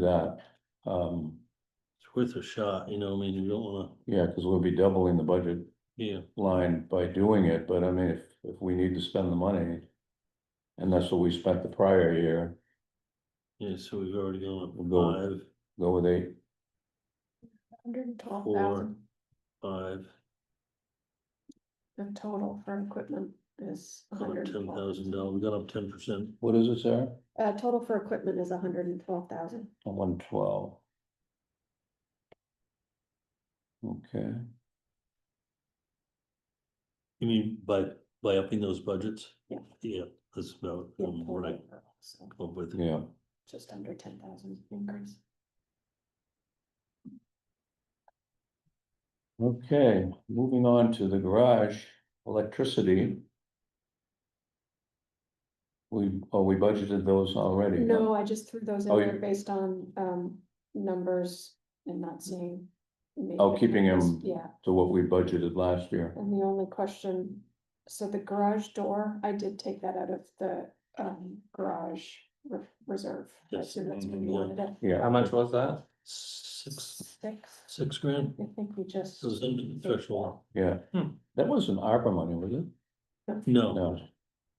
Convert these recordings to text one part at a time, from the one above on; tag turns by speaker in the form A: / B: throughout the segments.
A: that. Um,
B: It's worth a shot, you know, I mean, you don't wanna,
A: yeah, because we'll be doubling the budget
B: yeah,
A: line by doing it, but I mean, if, if we need to spend the money. And that's what we spent the prior year,
B: yeah, so we've already gone up
A: We'll go
B: five,
A: go with eight,
C: Hundred and twelve
B: four,
C: thousand
B: five,
C: in total for equipment is. a
B: about
C: hundred and
B: ten
C: twelve.
B: thousand dollars, we got up ten percent.
A: what is it, Sarah?
C: Uh, total for equipment is hundred and twelve thousand.
A: One twelve. Okay,
B: You mean by, by upping those budgets?
C: Yeah.
B: Yeah, that's about, um, what I
C: So
B: come up with.
A: yeah,
C: just under ten thousand increase.
A: okay, moving on to the garage, electricity. We, oh, we budgeted those already. huh?
C: No, I just threw those in
A: Oh,
C: there
A: you-
C: based on, um, numbers and not seeing. maybe
A: Oh, keeping
C: numbers.
A: them-
C: Yeah,
A: To what we budgeted last year,
C: and the only question, so the garage door, I did take that out of the, um, garage re- reserve. I
B: Yes,
C: assume that's where you
B: yeah.
C: wanted it.
A: Mm-hmm. yeah,
D: How much was that?
B: Six,
C: Six,
B: six grand,
C: I think we just.
B: so it's under the threshold,
A: yeah.
D: Hmm.
A: That wasn't ARPA money, was it?
B: no,
A: No.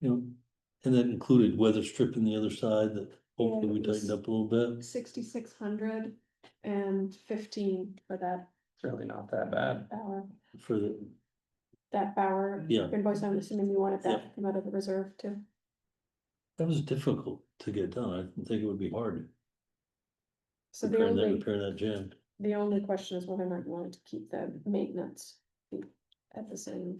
B: you know, and that included weather stripping the other side that hopefully we
C: it was-
B: tightened up a little bit.
C: sixty-six hundred and fifteen for that
D: It's really not that bad.
C: hour,
B: For the,
C: that Bauer
B: yeah,
C: invoice, I'm assuming you wanted that
B: Yeah.
C: to come out of the reserve too.
B: that was difficult to get done, I didn't think it would be hard,
C: So the
B: repairing that,
C: only,
B: repairing that jam.
C: the only question is whether or not you wanted to keep the maintenance fee at the same.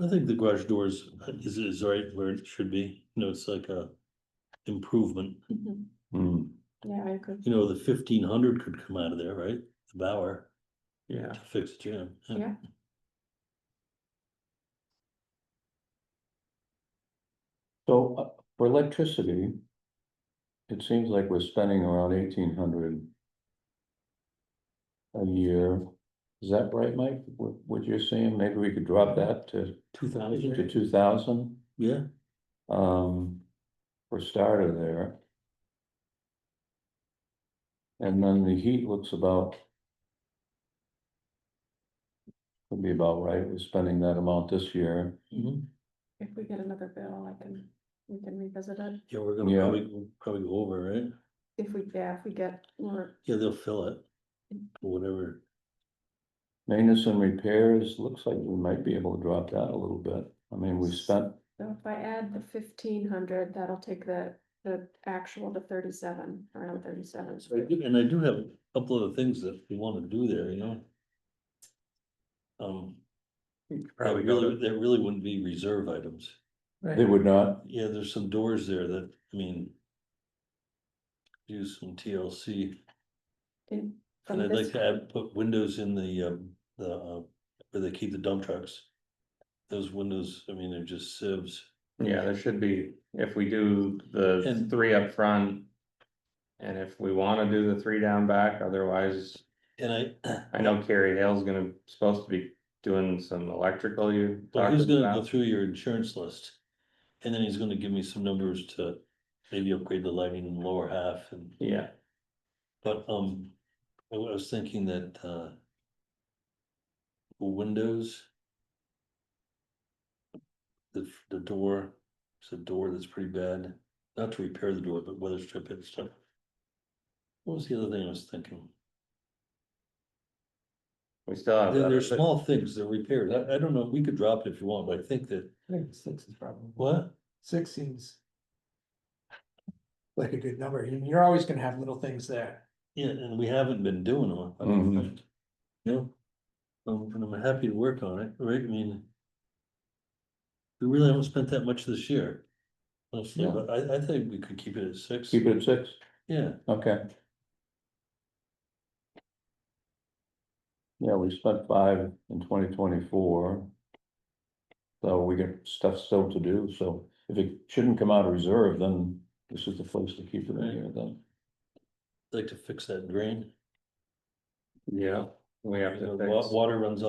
B: I think the garage doors is, is right where it should be, you know, it's like a improvement,
C: Mhm.
A: Hmm,
C: Yeah, I agree.
B: you know, the fifteen hundred could come out of there, right? The Bauer
D: Yeah.
B: to fix the gym.
C: Yeah.
A: So uh, for electricity, it seems like we're spending around eighteen hundred a year. Is that right, Mike? What, what you're saying? Maybe we could drop that to,
D: Two
A: to two thousand,
B: Yeah,
A: um, for starter there. And then the heat looks about would be about right. We're spending that amount this year.
C: If we get another bill, I can, we can revisit it.
B: yeah, we're gonna
A: Yeah.
B: probably, probably go over, right?
C: If we, yeah, if we get more,
B: Yeah, they'll fill it, or whatever,
A: Maintenance and repairs, looks like we might be able to drop that a little bit. I mean, we spent,
C: so if I add the fifteen hundred, that'll take the, the actual to thirty-seven, around thirty-seven.
B: So I do- and I do have a couple of things that we wanna do there, you know? Um, that
D: Probably go
B: really,
D: to,
B: that really wouldn't be reserve items.
A: they would not,
B: Yeah, there's some doors there that, I mean. Use some TLC,
C: In-
B: and
C: From
B: I'd like
C: this,
B: to add, put windows in the, um, the, uh, where they keep the dump trucks. Those windows, I mean, they're just sieves,
D: yeah, there should be, if we do the
B: And-
D: three up front. And if we wanna do the three down back, otherwise,
B: and I,
D: I know Carrie Hale's gonna, supposed to be doing some electrical you
B: but
D: talked
B: he's gonna go
D: about.
B: through your insurance list. And then he's gonna give me some numbers to maybe upgrade the lighting in the lower half and,
D: Yeah,
B: but, um, I was thinking that, uh. Windows. The, the door, it's a door that's pretty bad, not to repair the door, but weather strip it and stuff. What was the other thing I was thinking?
D: we still have.
B: There,
D: that-
B: there's small things that repaired, I, I don't know, we could drop it if you want, but I think that,
E: I think six is probably.
B: what?
E: Six seems. Like a good number, and you're always gonna have little things there.
B: Yeah, and we haven't been doing them, I don't
A: Mhm.
B: think. You know? Um, and I'm happy to work on it, right, I mean. We really haven't spent that much this year. Honestly,
A: Yeah.
B: but I, I think we could keep it at six,
A: keep it at six,
B: yeah,
A: okay. Yeah, we spent five in twenty twenty-four. So we got stuff still to do, so if it shouldn't come out of reserve, then this is the place to keep it in here then.
B: I'd like to fix that drain,
D: Yeah, we have
B: The
D: to
B: wa-
D: fix.
B: Water runs